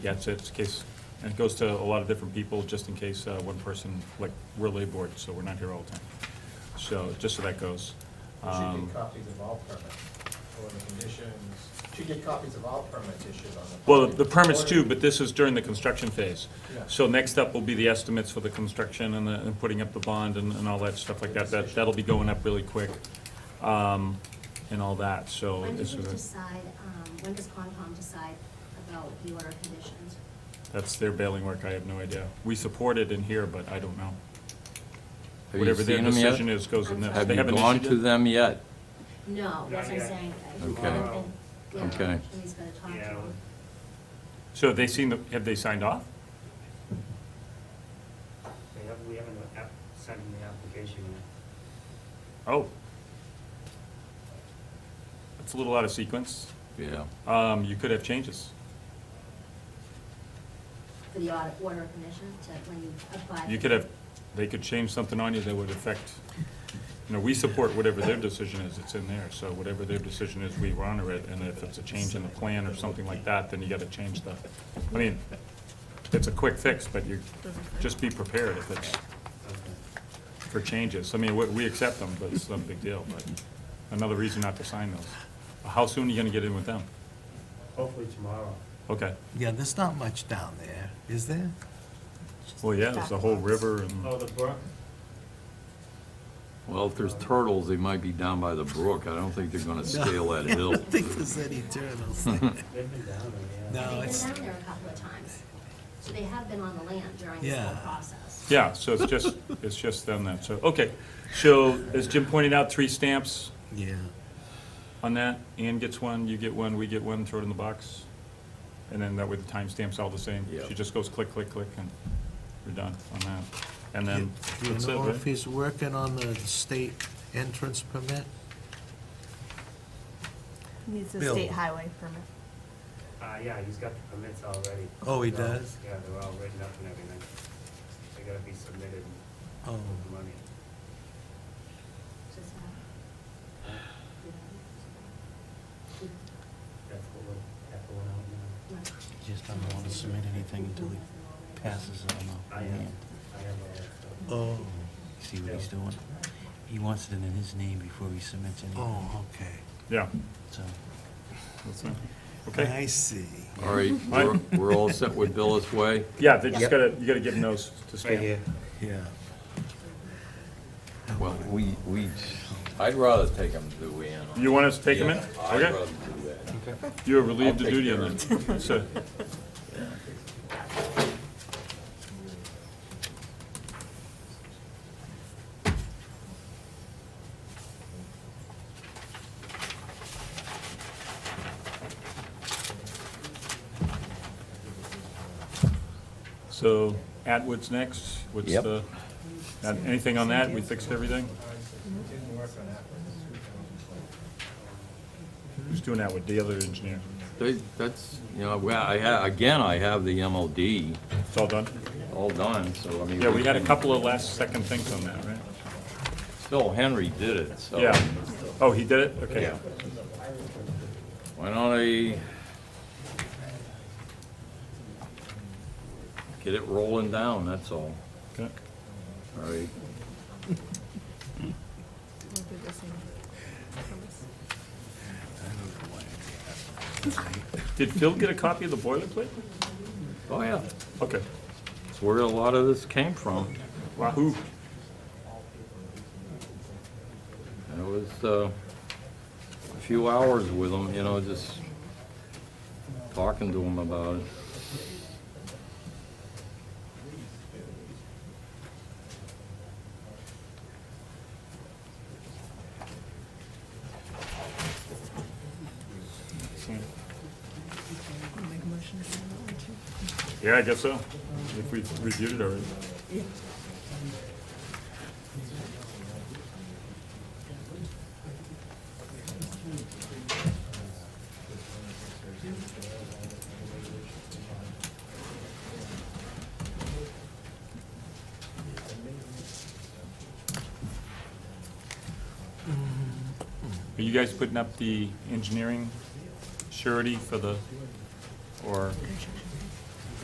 Yeah, it's, it's case, and it goes to a lot of different people, just in case uh, one person, like, we're labor board, so we're not here all the time. So, just so that goes. We should Um, get copies of all permits, or the conditions, should get copies of all permits issued on the. Well, the permits too, but this is during the construction phase. Yeah. So next up will be the estimates for the construction and the, and putting up the bond and, and all that stuff like that. That, that'll be going up really quick, um, and all that, so. When do this we is a- decide, um, when does Concom decide about the order of conditions? That's their bailing work, I have no idea. We support it in here, but I don't know. you Whatever their seen 'em yet? decision is goes in this. Have They you haven't gone issued to it? them yet? No, that's what I'm yet. saying. I- Okay. I've been- yeah, Okay. He's gonna talk to Yeah. him. So have they seen, the? have they signed off? They have, we haven't app, sent in the application yet. Oh. That's a little out of sequence. Yeah. Um, you could have changes. For the order, order of conditions, to when you apply. You could have, they could change something on you that would affect, you know, we support whatever their decision is, it's in there. So whatever their decision is, we honor it, and if it's a change in the plan or something like that, then you gotta change the, I mean, it's a quick fix, but you, just be prepared if it's Okay. for changes. I mean, we, we accept them, but it's not a big deal, but another reason not to sign those. How soon are you gonna get in with them? Hopefully tomorrow. Okay, Yeah, there's not much down there, is there? well, yeah, there's a whole river Hmm. and. Oh, the brook? Well, if there's turtles, they might be down by the brook. I don't think they're gonna scale that hill. I don't think there's any turtles there. They've been down there, yeah. No. They've it's- been down there a couple of times, so they have been on the land during this whole Yeah. process. Yeah, so it's just, it's just them then, so, okay. So, as Jim pointed out, three stamps Yeah, on that. Ann gets one, you get one, we get one, throw it in the box. And then that way the timestamp's all the same. Yeah. She just goes click, click, click, and we're done on that. And Do then, you that's it, know right? if he's working on the state entrance permit? Needs a Bill. state highway permit. Uh, yeah, he's got the permits already. Oh, he They're all- does? Yeah, they're all written up and everything. They gotta be submitted Oh, with the money. Does that- do That's what we're, that's what we're that? out Just don't want to submit anything until he passes it now. I uh, on the have, land. I have all that stuff. oh, See what he's doing? He wants it in his name before he submits anything, oh, okay. Yeah, so. that's it. Okay, I see. All right, we're, we're all set with Billis Way? yeah, they just gotta, you gotta give them those to stamp. Yeah. Well, we, we, I'd rather take them to the end. You want us to take them in? I'd rather Okay, do that. you are relieved I'll of take duty care on of that. So, so Atwood's next, what's Yep. the, not- anything on that? We fixed everything? Didn't work on that one. Who's doing Atwood? The other engineer. They, that's, you know, well, I ha, again, I have the MLD It's all done? all done, so I mean. Yeah, we had a can- couple of last second things on that, right? Phil Henry did it, so. Yeah. Oh, he did it? Okay. Yeah. Why don't I get it rolling down, that's all. Okay. All right, We'll do the same. Did Phil get a copy of the boilerplate? oh yeah, Okay. that's where a lot of this came from. Wahoo. And It was uh, a few hours with him, you know, just talking to him about it. Make a motion to sign that one too. Yeah, I guess so. If we reviewed it already. Are you guys putting up the engineering surety for the, or